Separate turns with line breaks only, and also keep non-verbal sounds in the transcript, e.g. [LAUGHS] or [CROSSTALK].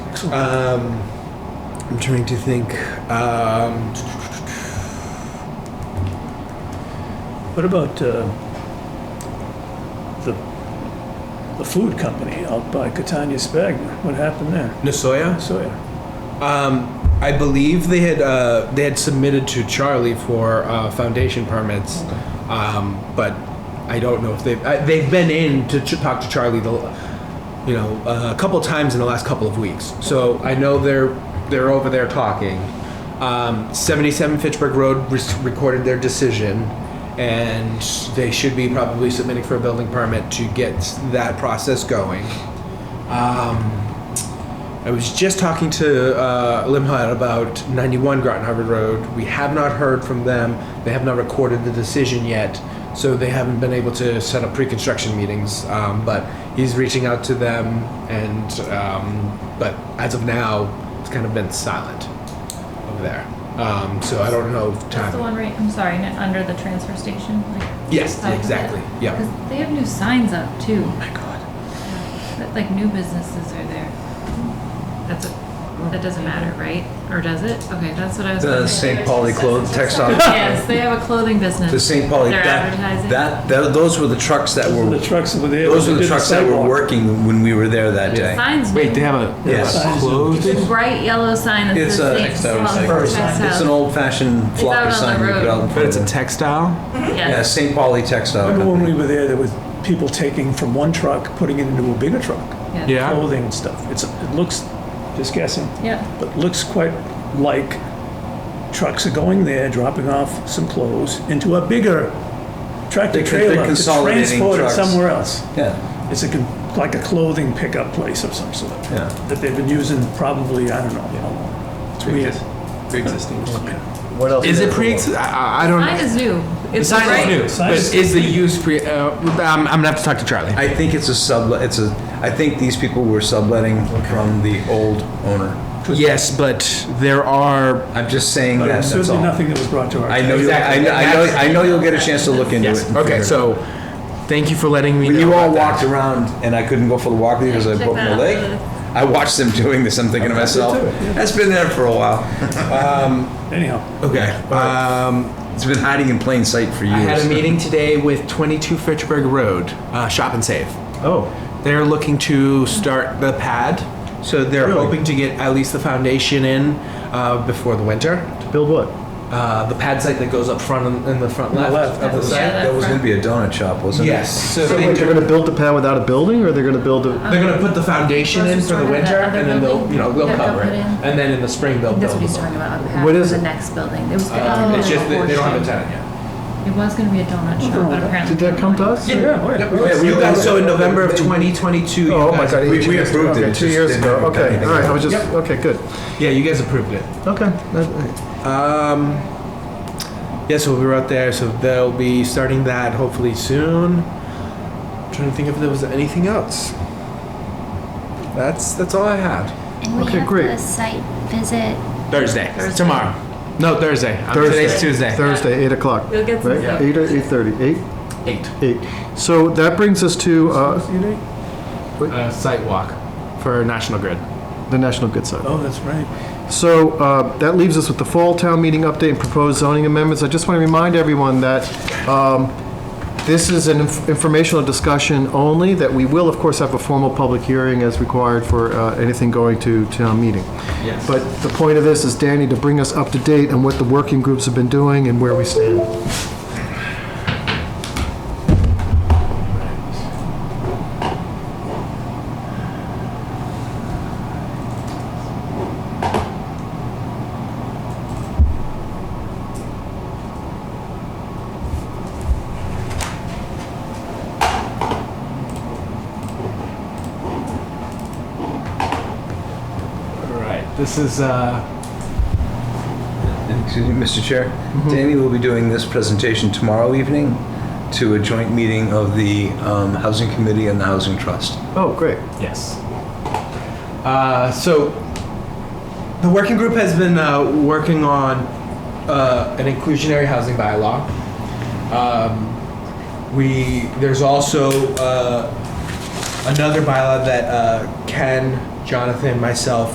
Excellent.
Um, I'm trying to think. Um,
What about uh, the, the food company out by Catania Spagna? What happened there?
Nasoya.
So,
Um, I believe they had uh, they had submitted to Charlie for uh, foundation permits, um, but I don't know if they've uh, they've been in to ch- talk to Charlie the you know uh, a couple times in the last couple of weeks. So I know they're they're over there talking. Um, 77 Fitchburg Road res- recorded their decision, and they should be probably submitting for a building permit to get that process going. I was just talking to uh, Limhut about 91 Groton Harvard Road. We have not heard from them. They have not recorded the decision yet, so they haven't been able to set up pre-construction meetings. Um, but he's reaching out to them, and um, but as of now, it's kind of been silent over there. Um, so I don't know if
That's the
time.
one right, I'm sorry, n- under the transfer station? like,
Yes,
side of it?
exactly, yeah.
'Cause They have new signs up too,
Oh my God.
that, like new businesses are there. That's, a- that doesn't matter, right? Or does it? Okay, that's what I was.
The
wondering.
St. Pauli clothes
[LAUGHS]
textile,
Yes, they have a clothing business.
the St. Pauli,
They're
that,
advertising.
that, that- those were the trucks that
the
were,
trucks that were there.
those
they
were the
did
trucks that were
sidewalk.
working when we were there that day.
Signs.
Wait,
do.
they have a
Yeah.
Yes.
The
closed.
bright yellow sign that
It's a,
says
it's
St. Pauli
an
textile.
old fashioned
It's out on
floppy
the
sign we put
road.
out in
But
front
it's a
of it.
textile.
Yeah,
Yes.
St. Pauli Textile.
Remember when we
Company.
were there, there was people taking from one truck, putting it into a bigger truck,
yes.
Yeah.
clothing and stuff. It's, it looks, just guessing,
Yeah,
but looks quite like trucks are going there, dropping off some clothes into a bigger tractor
They're- they're
trailer to
consolidating
transport it
trucks.
somewhere else.
Yeah,
It's a, con- like a clothing pickup place of some sort.
Yeah.
That they've been using probably, I don't know, how long. It's weird.
Pre-existing.
What else?
Is
do
it
they
pre?
have?
I, I don't.
sign is new.
The
It's
sign
bright-
is new,
Sign
but
is-
is the use pre? Uh, I'm, I'm gonna have to talk to Charlie.
I think it's a sublet, it's a, I think these people were subletting from the old owner.
yes, but there are.
I'm just saying
But it
that,
was
that's
certainly
all.
nothing that was brought to our.
I know, you'll- I
Exactly.
know, I know, I know you'll get a chance to look into it. and figure
Okay,
it
so thank you for letting me.
When
know
you all
about that.
walked around and I couldn't go for the walk with you because I
Check
broke my
that
leg,
out.
I watched them doing this. I'm thinking to myself, that's been there for a while. Oh.
Anyhow,
Okay. Um,
It's been hiding in plain sight for years.
I had a meeting today with 22 Fitchburg Road, uh, Shop and Save.
Oh,
They're looking to start the pad, so they're
Really?
hoping to get at least the foundation in uh, before the winter.
to build what?
Uh, the pad site that goes up front in, in the front
the
left,
left.
of the
Yeah,
site.
that
That was
front-
going to be a donut shop, wasn't it?
Yes. So,
So
they
wait,
do-
they're gonna build the pad without a building, or they're gonna build
Uh,
a?
They're gonna put the foundation in for the
Restaurant,
winter,
that other
and then they'll, you know, they'll
building. Yeah,
cover it,
they'll put in.
and then in the spring they'll
That's
build.
what Oh. he's talking about on behalf
What
of
is
the
it?
next building. It was
Uh,
gonna
It's
be
just
a
that they don't have a
portion.
tenant yet.
It was gonna be a donut shop, but apparently.
Did that come to us?
Yeah, you guys, so in November of 2022, you
Oh my
guys.
God!
we
years ago.
approved it,
Okay,
it
Two
just
years
didn't
ago.
have
Okay,
anything
all right. I
on
was
it.
just okay. Good.
Yeah, you guys approved it.
Okay. that-
Um, yeah, so we were out there, so they'll be starting that hopefully soon. Trying to think if there was anything else. That's, that's all I had.
And we
Okay,
have
great.
the site visit.
Thursday,
Thursday.
tomorrow. No, Thursday. Um,
Thursday.
Today's Tuesday.
Thursday, eight o'clock.
You'll get some
right?
stuff.
Eight or eight thirty. Eight.
Eight.
Eight. So that brings us to uh,
Uh, site walk for National Grid.
the National Good Side.
oh, that's right.
So uh, that leaves us with the fall town meeting update and proposed zoning amendments. I just want to remind everyone that um, this is an inf- informational discussion only, that we will, of course, have a formal public hearing as required for uh, anything going to town meeting. Yes. But the point of this is, Danny, to bring us up to date on what the working groups have been doing and where we stand.
All right. This is uh,
Excuse me, Mr. Chair, Danny will be doing this presentation tomorrow evening to a joint meeting of the um, Housing Committee and the Housing Trust.
Oh, great.
Yes. Uh, so the working group has been uh, working on uh, an inclusionary housing bylaw. Um, we there's also uh, another bylaw that uh, Ken, Jonathan, myself,